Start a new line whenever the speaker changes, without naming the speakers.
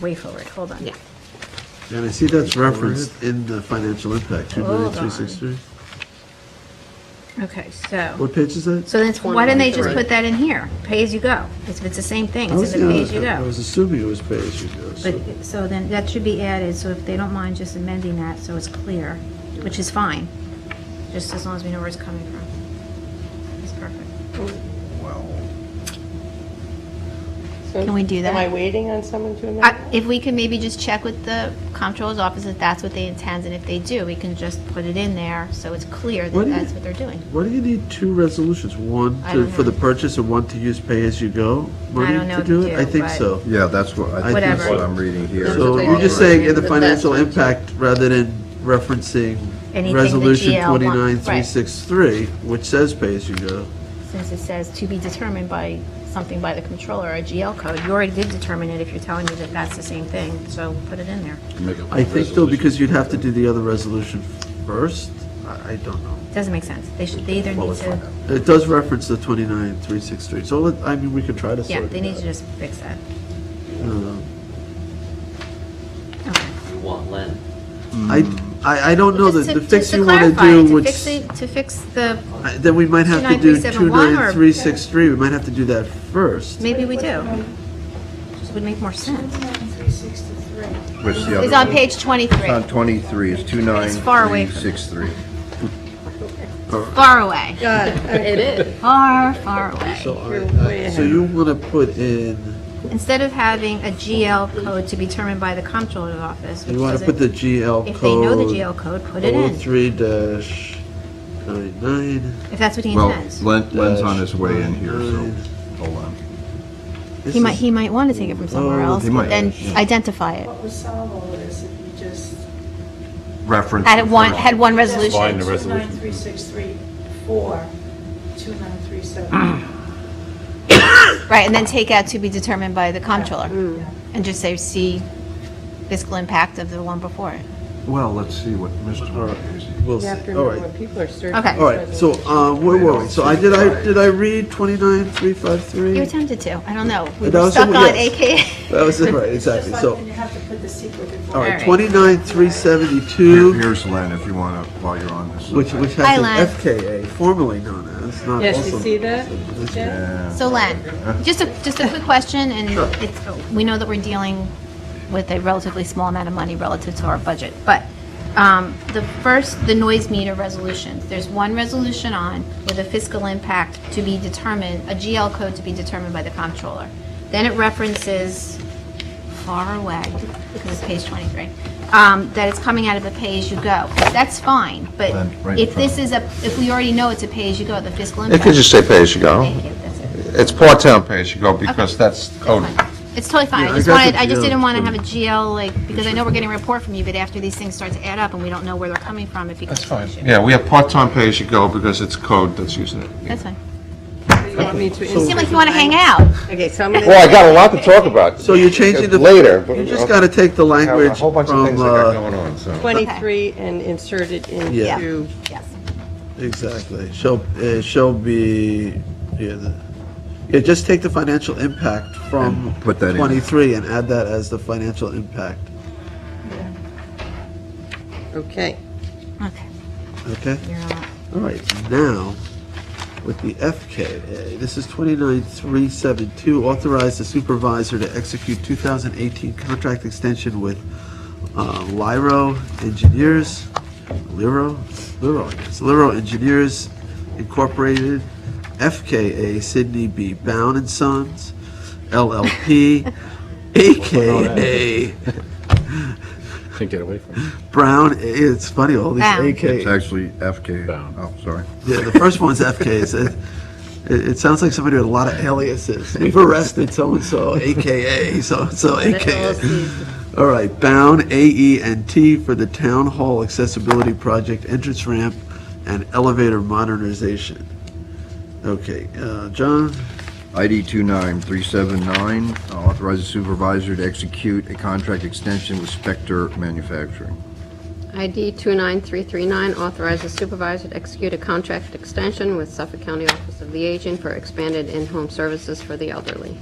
way forward, hold on.
Yeah.
And I see that's referenced in the financial impact, two million,
Hold
three six three.
Okay, so,
What page is that?
so that's, why didn't they just
23.
put that in here? Pay as you go, if it's the same thing,
I
it's
was- uh,
in the pay as you
I
go.
was assuming it was pay as you go, so.
But, so then, that should be added, so if they don't mind just amending that, so it's clear, which is fine, just as long as we know where it's coming from. It's perfect.
So
Can we do that?
Am I waiting on someone to amend?
I-
it?
If we can maybe just check with the comptroller's office if that's what they intend, and if they do, we can just put it in there so it's clear that
What do you-
that's what they're doing.
Why do you need two resolutions? One
I
to,
don't
for the
know.
purchase and one to use pay as you go? money
don't know
to
if you
it? I
do,
think
but-
so.
Yeah, that's what, I think that's
Whatever.
what I'm reading here. is
So
what
you're just saying in the
But that's
financial
what-
impact rather than referencing
Anything the
resolution
GL want-
twenty-nine,
right.
three six three, which says pay as you go.
Since it says to be determined by something by the controller or a GL code, you already did determine it if you're telling me that that's the same thing, so put it in there.
I think though, because you'd have to do the other resolution first, I, I don't know.
Doesn't make sense, they should, they either
Well,
need
let's find
to,
out.
It does reference the twenty-nine, three six three, so let- I mean, we could try to sort it
yeah,
out.
they need to just fix that.
Um,
Okay.
You want Len.
I, I, I don't know,
Just
the
to-
the fix
just to
you wanna
clarify,
do,
to
which,
fix the- To fix the,
I- then we might have to do
29371 or-
29363, we might have to do that first.
maybe we do. Just would make more sense.
Which the other
It's on
one-
page
It's
23,
on 23, it's
It's far away from-
29363.
far away,
God, it is.
far, far away.
So, all right, so you wanna put in,
Instead of having a GL code to be determined by the comptroller's office, which
you wanna
doesn't.
put the GL code. oh
If they know the GL code, put it in,
03-99.
if that's what he
Well,
intends.
Len- Len's on his way in here, so,
Nine.
hold on.
This
He might,
is-
he might want to take it from somewhere
Oh,
else,
he
but
might,
then
yeah.
identify it.
What was solvable is if you just.
Reference.
Had it one,
first.
had one resolution.
Find the resolution.
29363 for 2937.
Right, and then take out to be determined by the comptroller,
Mm.
and just say, see fiscal impact of the one before it.
Well, let's see what Mr. Marquez-
We'll
You have
see,
to
all
remember
right,
when people are searching.
Okay.
all right, so, uh, where were we? So I, did I, did I read
You
29-353?
attempted to, I don't know, we
That
were
was
stuck
the-
on
yes.
AKA.
That was it, right,
Just
exactly,
like
so,
when you have to put the secret before.
all right,
right.
29-372.
Here- Here's Len, if you want to, while you're on this.
Which, which
Hi,
has an
Len.
FKA, formerly known as, not
Yes, you
also
see that?
known as.
Yeah.
Yeah.
So Len, just a, just a quick question, and it's, we know that we're dealing with a relatively small amount of money relative to our budget, but um, the first, the noise meter resolutions, there's one resolution on with a fiscal impact to be determined, a GL code to be determined by the comptroller. Then it references far away, because it's page 23, um, that it's coming out of a pay-as-you-go. That's fine, but
Len, right in
if this is a, if we already know it's a pay-as-you-go, the fiscal
It
impact.
could just say pay-as-you-go.
Thank you, that's it.
It's part-time pay-as-you-go because that's code.
It's totally fine.
Yeah,
I
I
just
got
wanted,
the
I just
GL
didn't want to have a
too.
GL, like, because I know we're getting a report from you, but after these things start to add up and we don't know where they're coming from, it becomes an issue.
Yeah, we have part-time pay-as-you-go because it's code that's using it.
That's fine.
You want me to
You seem like
insert-
you want to hang out.
Okay, so I'm gonna.
Well, I got a lot to talk about.
So you're changing the.
Later, but
You
I'll-
just gotta take the
I have
language
a whole bunch of
from,
things I got
uh,
going on, so.
23 and insert it
Yeah.
into,
Yes.
uh, exactly, shall, uh, shall be, yeah, the, yeah, just take the financial impact from
And put that in.
twenty-three and add that as the financial impact,
okay.
Okay.
okay?
You're all-
All right, now, with the FKA, this is 29372, authorize the supervisor to execute 2018 contract extension with uh, Lyro Engineers, Lyro, Lyro, I guess, Lyro Engineers Incorporated, FKA Sydney B. Bound and Sons, LLP, AKA
Can't get away from it.
Brown, it's funny, all these
Bound.
AKA.
It's actually FK.
Bound.
Oh, sorry.
Yeah, the first one's FKs. It, it, it sounds like somebody with a lot of aliases. We've arrested so-and-so, AKA, so-and-so, AKA. All right, Bound, AE&T for the Town Hall Accessibility Project Entrance Ramp and Elevator Modernization. Okay, uh, John,
ID 29379, authorize the supervisor to execute a contract extension with Spectre Manufacturing.
ID 29339, authorize the supervisor to execute a contract extension with Suffolk County Office of the Aging for expanded in-home services for the elderly.